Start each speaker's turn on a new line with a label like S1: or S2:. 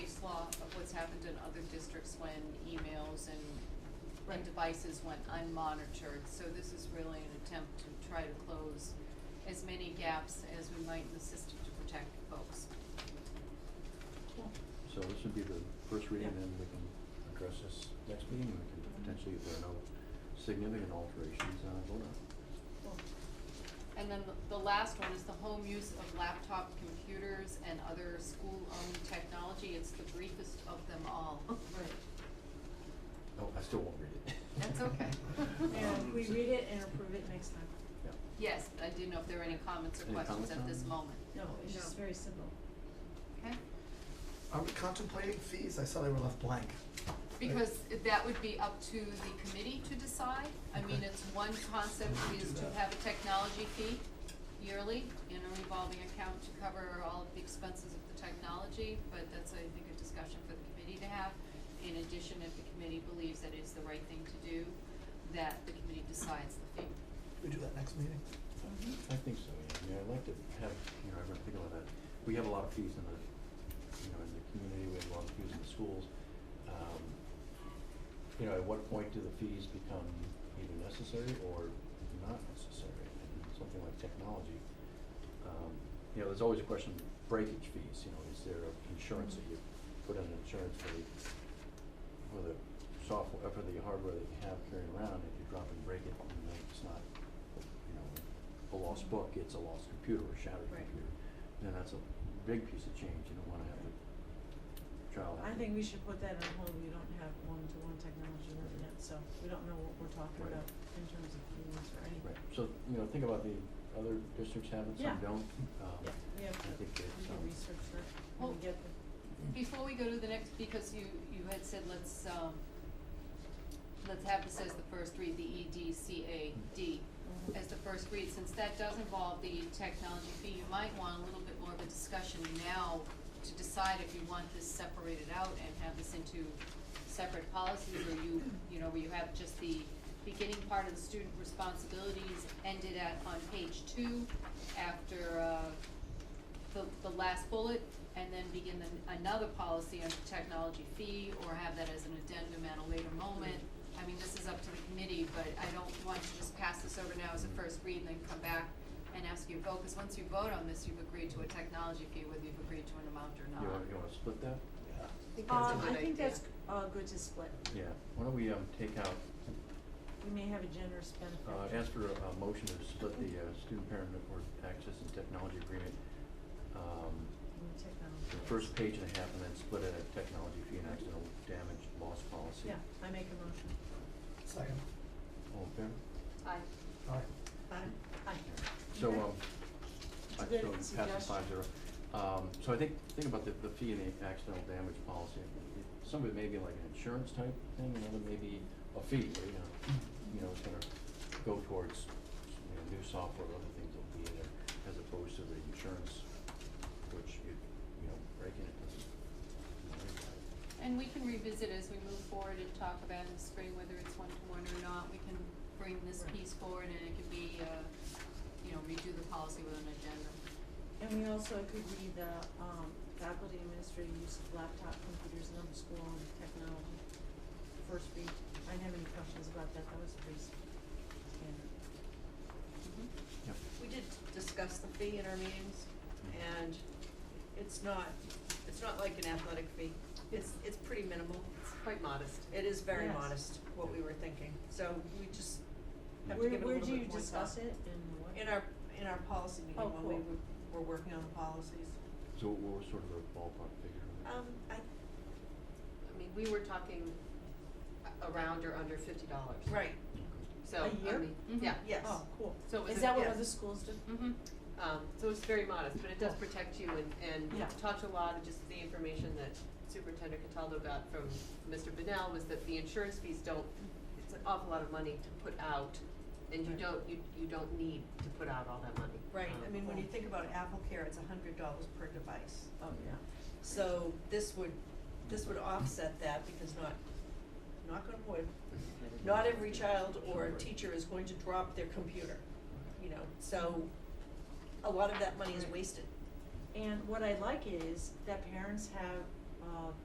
S1: has happened in other districts when emails and, and
S2: Right.
S1: devices went unmonitored. So this is really an attempt to try to close as many gaps as we might in the system to protect folks.
S3: So this would be the first reading,
S2: Yeah.
S3: then we can address this next meeting, and we can potentially, if there are no significant alterations, uh, vote on. it.
S1: And then the- the last one is the home use of laptop computers and other school-owned technology. It's the briefest of them all.
S2: Oh, Right,
S3: No, I still won't read it.
S1: That's okay.
S2: and we read it and approve it next time.
S3: Yeah.
S1: Yes, I didn't know if there were any comments or
S3: Any
S1: questions
S3: comments
S1: at
S3: on
S1: this
S3: it?
S1: moment.
S2: No, it's just very simple.
S1: Okay?
S4: Are we contemplating fees? I saw they were left blank.
S1: Because that would be up to the committee to decide. I mean,
S4: Okay.
S1: it's one concept
S4: We can
S1: is
S4: do
S1: to
S4: that.
S1: have a technology fee yearly in a revolving account to cover all of the expenses of the technology, but that's, I think, a discussion for the committee to have. In addition, if the committee believes that it's the right thing to do, that the committee decides the fee.
S4: We do that next meeting.
S1: Mm-hmm.
S3: I think so, yeah, yeah, I'd like to have, you know, everyone think about that, we have a lot of fees in the, you know, in the community, we have a lot of fees in the schools. Um, You know, at what point do the fees become either necessary or not necessary, and something like technology? um, You know, there's always a question of breakage fees, you know, is there a insurance that you put on insurance for the, for the software, for the hardware that you have carrying around, if you drop and break it, you know, it's not, you know, a lost book, it's a lost computer or shattered
S2: Right.
S3: computer. Then that's a big piece of change, you don't wanna have the child
S2: I
S3: have to-
S2: think we should put that on hold, we don't have one-to-one technology with it, so we don't know what we're talking
S3: Right.
S2: about in terms of fees or anything.
S3: Right, so, you know, think about the other districts have it,
S2: Yeah.
S3: some don't, um,
S2: Yeah, we have
S3: I
S2: to, we
S3: think it's,
S2: can
S3: um,
S2: research that,
S1: Well-
S2: and get the,
S1: Before we go to the next, because you, you had said let's, um, let's have this as the first read, the E D C A D.
S2: Mhm.
S1: as the first read, since that does involve the technology fee, you might want a little bit more of a discussion now to decide if you want this separated out and have this into separate policies, or you, you know, where you have just the beginning part of the student responsibilities ended at on page two after, uh, the, the last bullet, and then begin the, another policy on the technology fee, or have that as an addendum at a later moment. I mean, this is up to the committee, but I don't want to just pass this over now as a first read and then come back and ask you to vote, because once you vote on this, you've agreed to a technology fee, whether you've agreed to an amount or not.
S3: you wanna, you wanna split that?
S4: Yeah.
S1: I think that's a
S2: Um,
S1: good
S2: I think
S1: idea.
S2: that's, uh, good to split,
S3: Yeah, why don't we, um, take out,
S2: we may have a generous benefit.
S3: Uh, ask for a, a motion to split the, uh, student parent network access and technology agreement, um,
S2: in the technology.
S3: the first page and a half, and then split it at technology fee and accidental damage loss policy.
S2: Yeah, I make a motion,
S4: Second.
S3: All in favor?
S1: Aye.
S4: All right.
S2: aye, aye,
S3: So,
S2: Okay.
S3: um,
S2: It's
S3: I,
S2: a
S3: so
S2: good
S3: it passes
S2: suggestion.
S3: five zero. Um, so I think, think about the, the fee and the accidental damage policy. It- Some of it may be like an insurance type thing, another may be a fee, where, you know, you know, it's gonna go towards, you know, new software, or other things will be in there, as opposed to the insurance, which you, you know, breaking it doesn't. you know, worry about it.
S1: And we can revisit as we move forward and talk about in the spring whether it's one-to-one or not. We can bring this
S2: Right.
S1: piece forward and it could be, uh, you know, redo the policy with an addendum.
S2: and we also could read the, um, faculty administrative use of laptop computers and other school-owned technology. First read, I didn't have any questions about that, that was pretty s- standard.
S3: Yep.
S5: We did discuss the fee in our meetings, and it's not, it's not like an athletic fee. It's, it's pretty minimal, it's quite modest. It is very
S2: Yes.
S5: modest, what we were thinking. So we just have to
S2: Where,
S5: give it a
S2: where
S5: little
S2: do you
S5: bit more
S2: discuss
S5: thought.
S2: it and what?
S5: In our, in our policy meeting,
S2: Oh,
S5: when we
S2: cool.
S5: were, were working on the policies.
S3: So what was sort of a ballpark figure?
S5: Um, I,
S6: I mean, we were talking a- around or under fifty dollars.
S5: right,
S6: So,
S2: A
S6: I
S2: year?
S6: mean,
S1: Mhm.
S6: yeah,
S5: yes.
S2: Oh, cool.
S6: So was
S2: Is
S6: it-
S2: that what
S5: yes.
S2: other schools do?
S1: Mm-hmm.
S6: um, so it's very modest, but it does protect you and, and
S2: Yeah.
S6: we've talked a lot of just the information that Superintendent Cataldo got from Mr. Bennell was that the insurance fees don't, it's an awful lot of money to put out and you
S2: Right.
S6: don't, you, you don't need to put out all that money.
S5: Right,
S2: Oh,
S5: I
S6: Um,
S5: mean, when you think about Apple Care, it's a hundred dollars per device.
S2: Oh, yeah.
S5: So this would, this would offset that because not, knock on wood, not every child or
S3: Right.
S5: teacher is going to drop their computer, you know, so a lot of that money is
S2: Right.
S5: wasted.
S2: And what I like is that parents have, uh,